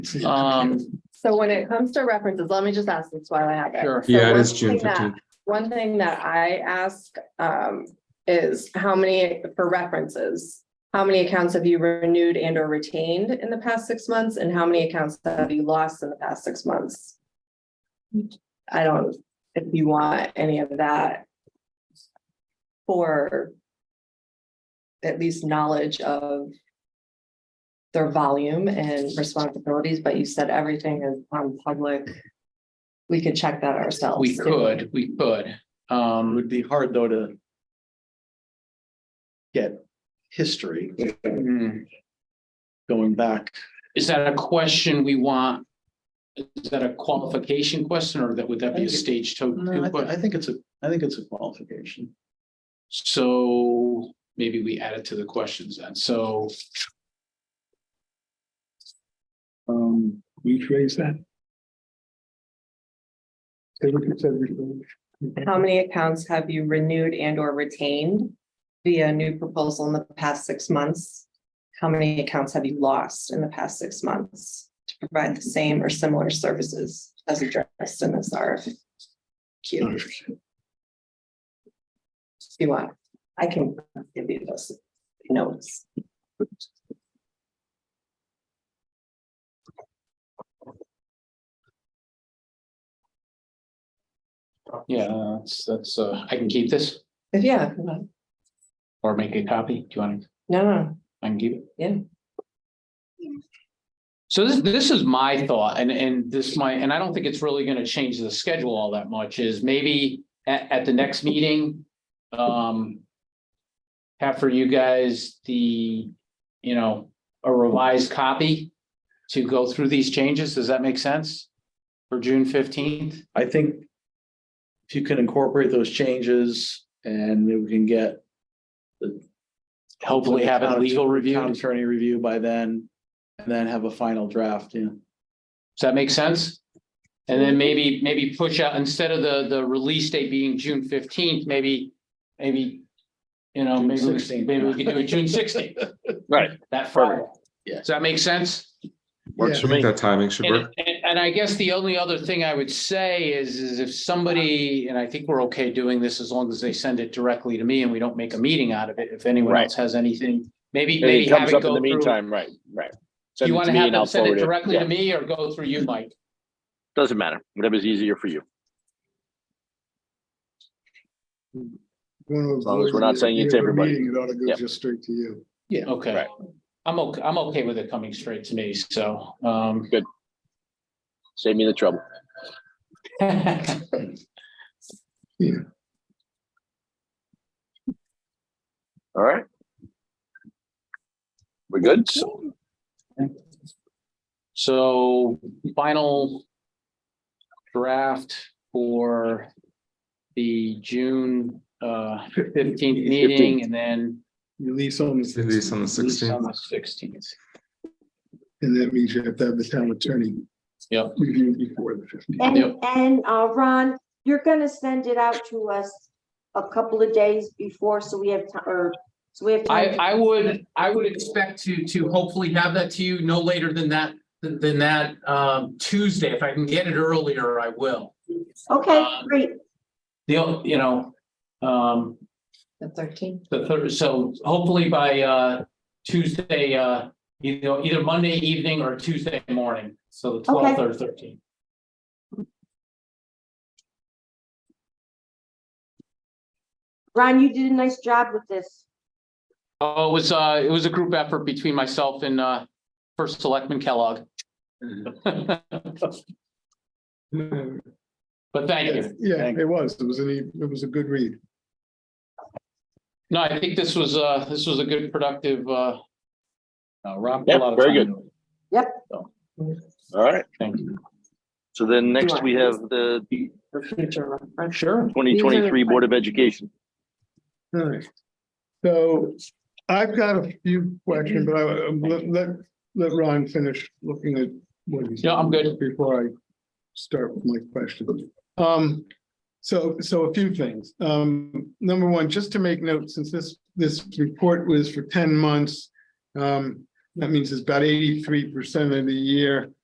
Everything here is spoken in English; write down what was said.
Um, So when it comes to references, let me just ask this while I have it. sure. So Yeah, it one is June thing that- fifteenth. One thing that I ask um is how many for references? How many accounts have you renewed and or retained in the past six months and how many accounts have you lost in the past six months? I don't, if you want any of that. For. At least knowledge of. Their volume and responsibilities, but you said everything is on public. We could check that ourselves. We could, we could. It Um, would be hard though to. Get history mm, going back. is that a question we want? Is that a qualification question or that would that be a stage two? No, I, thi- I question? think it's a, I think it's a qualification. So maybe we add it to the questions then. So Um, we raise that. Say what you said before. How many accounts have you renewed and or retained via new proposal in the past six months? How many accounts have you lost in the past six months to provide the same or similar services as addressed in this RFQ? If you want, I can give you those notes. yeah, that's, that's, uh, I can keep this If yeah, if you want. or make a copy. Do you want to? no, no, I can give it. Yeah. So this, this is my thought and, and this might, and I don't think it's really gonna change the schedule all that much is maybe at, at the next meeting. Um. Have for you guys the, you know, a revised copy to go through these changes. Does that make sense? For June fifteenth? I think. If you can incorporate those changes and maybe we can get. Hopefully have a legal review. Town Does attorney review by then, and then have a final draft, yeah. that make sense? And then maybe, maybe push out, instead of the, the release date being June fifteenth, maybe, maybe, you know, June maybe, we- 16th. maybe we could do it June sixteenth. Right. That Friday. Yeah. Does that make sense? Works for me. That timing should And, work. and- and I guess the only other thing I would say is, is if somebody, and I think we're okay doing this as long as they send it directly to me and we don't make a meeting out of it, if anyone Right. else has anything, maybe, Maybe maybe it have comes it up in go the through. meantime, right, right. Do Send you it want to me have and them I'll send it forward directly Yeah, to me or go through you, Mike? Doesn't matter, whatever's easier for you, As long as we're not saying it's everybody. It ought to go Yep. just straight to you. Okay. Right. I'm okay, I'm okay with it coming straight to me, so, um. save me the trouble. All right. We're good? So final draft for the June uh fifteenth meeting and then Release on. the Release on the release on sixteenth. the sixteenth. And that means you have to have the town attorney. Yep. Review before the fifteenth. Yep. And, and, uh, Ron, you're gonna send it out to us a couple of days before, so we have, ti- or, so we have. I time. I would, I would expect to to hopefully have that to you no later than that, than that um Tuesday. If I can get it earlier, I will. Okay, uh, great. The, o- you know, um the thirteen. The third, so hopefully by uh Tuesday, uh, you know, either Monday evening or Tuesday morning, so the Okay. twelfth or thirteenth. Ron, you did a nice job with this. Oh, it was uh, it was a group effort between myself and uh first selectman Kellogg. But thank you. Yeah, it was. It was a, it was a good read. No, I think this was uh, this was a good productive uh. Uh, Rob. Yeah, very good. All right, Thank you. so then next we have the For future reference. Sure. twenty twenty-three Board of Education. All right. So I've got a few questions, but I, um, let, let, let Ron finish looking at what he's. Yeah, I'm good. Before I start with my question. Um, so, so a few things. Um, number one, just to make note, since this, this report was for ten months, um, that means it's about eighty-three percent of the year.